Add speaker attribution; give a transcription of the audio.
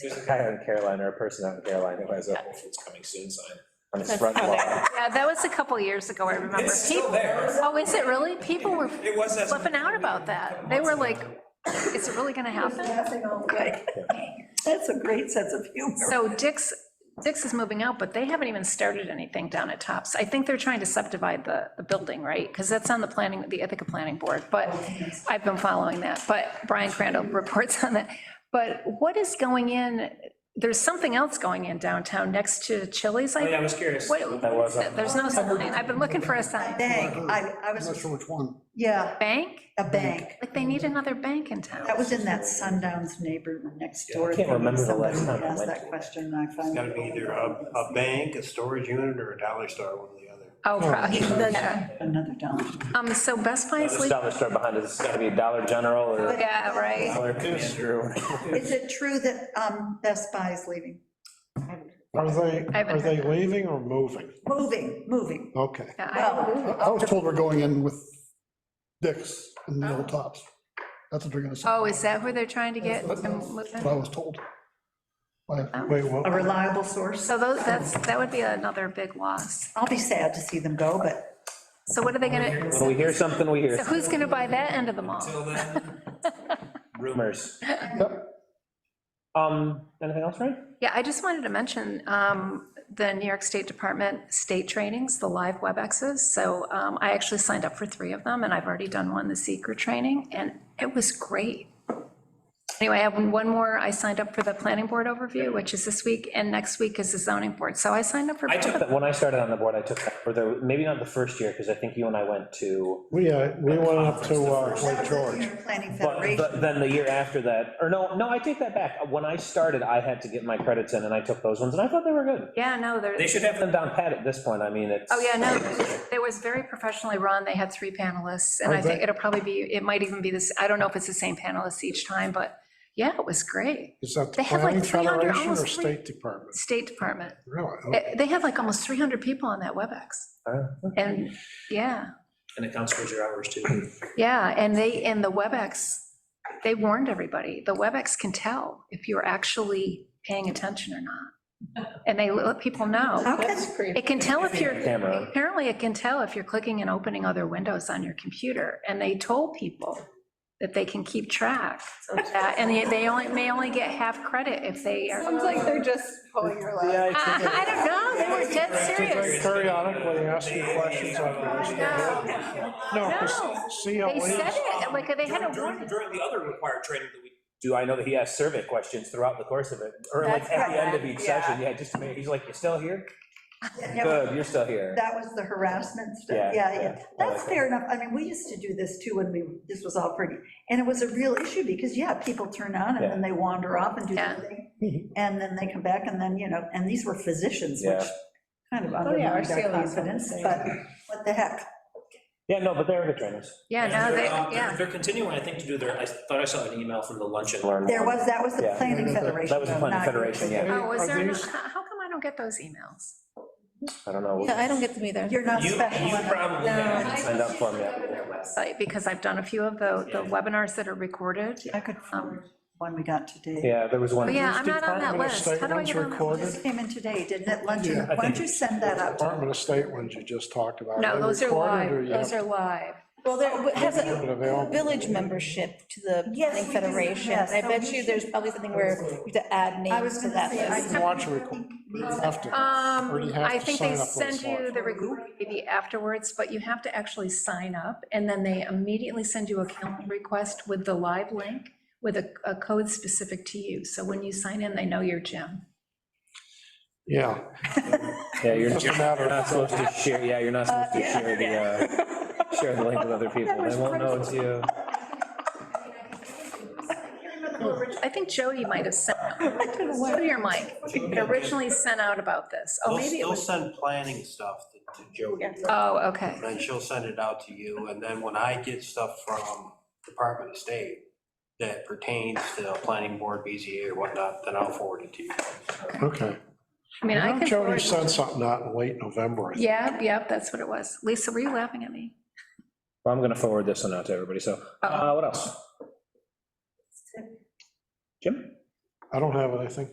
Speaker 1: There's a guy out in Caroline or a person out in Caroline who has a Whole Foods coming soon sign on his front lawn.
Speaker 2: Yeah, that was a couple years ago, I remember.
Speaker 1: It's still
Speaker 2: People-
Speaker 1: there.
Speaker 2: Oh, is it really? People were
Speaker 1: It was that.
Speaker 2: flipping out about that. They were like, is it really gonna happen?
Speaker 3: Laughing all day. That's a great sense of humor.
Speaker 2: So Dick's, Dick's is moving out, but they haven't even started anything down at Tops. I think they're trying to subdivide the, the building, right? Because that's on the planning, the Ithaca Planning Board, but I've been following that, but Brian Crandall reports on that. But what is going in, there's something else going in downtown next to Chili's, I
Speaker 1: Oh,
Speaker 2: think?
Speaker 1: yeah, I was curious.
Speaker 2: What,
Speaker 1: That was on-
Speaker 2: there's no sign, I've been looking for a sign.
Speaker 3: Bank, I, I
Speaker 4: I'm not
Speaker 3: was,
Speaker 4: sure which one.
Speaker 3: yeah,
Speaker 2: Bank?
Speaker 3: a bank.
Speaker 2: Like, they need another bank in town.
Speaker 3: That was in that Sundowns neighborhood next door.
Speaker 1: I can't remember the last time I
Speaker 3: Asked
Speaker 1: went
Speaker 3: that
Speaker 1: to.
Speaker 3: question, and I
Speaker 5: It's
Speaker 3: finally.
Speaker 5: gotta be either a, a bank, a storage unit, or a Dollar Store, one or the other.
Speaker 2: Oh, probably, yeah.
Speaker 3: Another dollar.
Speaker 2: Um, so Best Buy is
Speaker 1: This
Speaker 2: leaving,
Speaker 1: dollar store behind us, it's gotta be Dollar General or
Speaker 2: yeah, right.
Speaker 1: Dollar Commander or whatever.
Speaker 3: Is it true that um, Best Buy is leaving?
Speaker 4: Are they,
Speaker 2: I haven't
Speaker 4: are they
Speaker 2: heard that.
Speaker 4: leaving or moving?
Speaker 3: Moving, moving.
Speaker 4: Okay.
Speaker 2: Yeah, I-
Speaker 4: I
Speaker 3: Well,
Speaker 4: I was told we're going in with Dick's and the old tops. That's what they're gonna say.
Speaker 2: Oh, is that where they're trying to get them
Speaker 4: That's What I
Speaker 2: moving?
Speaker 4: was told. Wait, wait,
Speaker 3: a
Speaker 4: what?
Speaker 3: reliable source.
Speaker 2: So those, that's, that would be another big loss.
Speaker 3: I'll be sad to see them go, but
Speaker 2: So what are they gonna,
Speaker 1: When we
Speaker 2: so
Speaker 1: hear something, we hear
Speaker 2: who's gonna buy that end of the mall?
Speaker 1: rumors.
Speaker 4: Yep.
Speaker 1: Um, anything else, Ryan?
Speaker 2: Yeah, I just wanted to mention um, the New York State Department state trainings, the live WebExes. So um, I actually signed up for three of them, and I've already done one, the seeker training, and it was great. Anyway, I have one more. I signed up for the planning board overview, which is this week, and next week is the zoning board. So I signed up for.
Speaker 1: I
Speaker 2: both
Speaker 1: took
Speaker 2: of
Speaker 1: that, when I started on the board, I took that, or the, maybe not the first year, because I think you and I went to,
Speaker 4: We, uh, we went up to uh,
Speaker 3: that
Speaker 4: Lake
Speaker 3: was the
Speaker 4: George.
Speaker 3: Senior Planning
Speaker 1: but
Speaker 3: Federation.
Speaker 1: the- then the year after that, or no, no, I take that back. When I started, I had to get my credits in, and I took those ones, and I thought they were good.
Speaker 2: Yeah, no, they're.
Speaker 1: They should have them down pat at this point, I mean, it's.
Speaker 2: Oh, yeah, no, it was very professionally run. They had three panelists,
Speaker 1: Oh,
Speaker 2: and I think
Speaker 4: Okay.
Speaker 2: it'll probably be, it might even be this, I don't know if it's the same panelists each time, but yeah, it was great.
Speaker 4: Is that
Speaker 2: They
Speaker 4: the
Speaker 2: had like
Speaker 4: planning
Speaker 2: 300,
Speaker 4: federation or
Speaker 2: almost three-
Speaker 4: state department?
Speaker 2: State Department.
Speaker 4: Really?
Speaker 2: Eh, They had like almost 300 people on that WebEx.
Speaker 1: Uh,
Speaker 2: And, yeah,
Speaker 1: And it counts towards your hours too.
Speaker 2: yeah, and they, and the WebEx, they warned everybody. The WebEx can tell if you're actually paying attention or not. And they let people know.
Speaker 3: How can,
Speaker 2: It can tell if you're,
Speaker 1: Camera.
Speaker 2: apparently it can tell if you're clicking and opening other windows on your computer. And they told people that they can keep track of that. And they- they only, may only get half credit if they are.
Speaker 6: Sounds like they're just pulling your leg.
Speaker 4: Yeah, I think
Speaker 2: I don't know, they were dead
Speaker 4: They
Speaker 2: serious.
Speaker 4: periodically ask you questions like this. No,
Speaker 2: No.
Speaker 4: because
Speaker 2: They said
Speaker 4: CLE,
Speaker 2: it, like, they had a warning.
Speaker 1: During during the other required training that we. Do I know that he has survey questions throughout the course of it, or like
Speaker 6: That's
Speaker 1: at
Speaker 6: how
Speaker 1: the end of
Speaker 6: that-
Speaker 1: each
Speaker 6: yeah.
Speaker 1: session, yeah, just to make, he's like, you're still here?
Speaker 3: yeah,
Speaker 1: Good, you're still here.
Speaker 3: that was the harassment
Speaker 1: Yeah,
Speaker 3: stuff, yeah,
Speaker 1: yeah.
Speaker 3: yeah. That's fair enough. I mean, we used to do this too when we, this was all pretty. And it was a real issue because, yeah, people turn on and then they wander off and do
Speaker 2: Yeah.
Speaker 3: their thing. And then they come back and then, you know, and these were physicians, which
Speaker 1: Mm-hmm. Yeah.
Speaker 3: kind of
Speaker 6: Oh, yeah,
Speaker 3: undermined
Speaker 6: our
Speaker 3: our
Speaker 6: CLEs were the
Speaker 3: confidence,
Speaker 6: same.
Speaker 3: but what the heck?
Speaker 1: Yeah, no, but they're good trainers.
Speaker 2: Yeah, no, they,
Speaker 4: uh,
Speaker 2: yeah.
Speaker 7: They're continuing, I think, to do their, I thought I saw an email from the luncheon.
Speaker 1: Learn
Speaker 3: There
Speaker 1: more.
Speaker 3: was, that was the
Speaker 1: Yeah.
Speaker 3: Planning Federation.
Speaker 1: That was the planning
Speaker 3: not-
Speaker 1: federation, yeah,
Speaker 2: Oh, was
Speaker 4: Are
Speaker 2: there, no-
Speaker 4: these-
Speaker 2: h- how come I don't get those emails?
Speaker 1: I don't know.
Speaker 6: I don't get them either.
Speaker 3: You're not
Speaker 7: You, you
Speaker 3: special enough.
Speaker 7: probably
Speaker 6: No.
Speaker 7: have.
Speaker 1: Signed up for them, yeah.
Speaker 2: Website, because I've done a few of the, the webinars that are recorded.
Speaker 3: I could forward
Speaker 6: Um,
Speaker 3: one we got today.
Speaker 1: Yeah, there was one.
Speaker 2: But yeah, I'm not on that
Speaker 4: Department of
Speaker 2: list.
Speaker 4: State
Speaker 2: How do I
Speaker 4: ones
Speaker 2: get on that
Speaker 3: It
Speaker 4: recorded.
Speaker 2: list?
Speaker 3: just came in today, didn't it? Why
Speaker 4: Yeah, I
Speaker 3: don't you send that out? to-
Speaker 4: Department of State ones you just talked about.
Speaker 2: No,
Speaker 4: they
Speaker 2: those are
Speaker 4: recorded or
Speaker 2: live,
Speaker 4: you
Speaker 2: those
Speaker 4: have-
Speaker 2: are live.
Speaker 6: Well, there has
Speaker 4: But
Speaker 6: a
Speaker 4: available.
Speaker 6: village membership to the
Speaker 3: Yes,
Speaker 6: planning
Speaker 3: we do,
Speaker 6: federation.
Speaker 3: yes,
Speaker 6: I
Speaker 3: so
Speaker 6: bet
Speaker 3: we
Speaker 6: you
Speaker 3: should-
Speaker 6: there's probably something where you have to add
Speaker 3: I was
Speaker 6: names to
Speaker 3: gonna
Speaker 6: that
Speaker 3: say, I-
Speaker 6: list.
Speaker 4: You can Watch a record. You have to.
Speaker 2: Um,
Speaker 4: Already have
Speaker 2: I
Speaker 4: to
Speaker 2: think they
Speaker 4: sign up for
Speaker 2: send
Speaker 4: this
Speaker 2: you
Speaker 4: one.
Speaker 2: the recording maybe afterwards, but you have to actually sign up, and then they immediately send you a calendar request with the live link, with a, a code specific to you, so when you sign in, they know your gym.
Speaker 4: Yeah.
Speaker 1: Yeah, you're
Speaker 4: Just a
Speaker 1: you're
Speaker 4: matter
Speaker 1: not
Speaker 4: of,
Speaker 1: supposed to share, yeah, you're not supposed to
Speaker 3: Uh, yeah.
Speaker 1: share the, uh, share the link with other people. They won't know it's you.
Speaker 2: I think Jody might have sent, Jody or Mike, it originally sent out about this, oh,
Speaker 5: They'll,
Speaker 2: maybe it
Speaker 5: they'll
Speaker 2: was,
Speaker 5: send planning stuff to to Jody. And
Speaker 2: oh, okay,
Speaker 5: then she'll send it out to you, and then when I get stuff from Department of State that pertains to planning board, BZA or whatnot, then I'll forward it to you.
Speaker 4: okay.
Speaker 2: I mean, I can.
Speaker 4: Jody
Speaker 2: forward-
Speaker 4: sent something out in late November. I think.
Speaker 2: Yeah, yep, that's what it was. Lisa, were you laughing at me?
Speaker 1: Well, I'm gonna forward this one out to everybody, so, uh, what else? Jim?
Speaker 4: I don't have it, I think.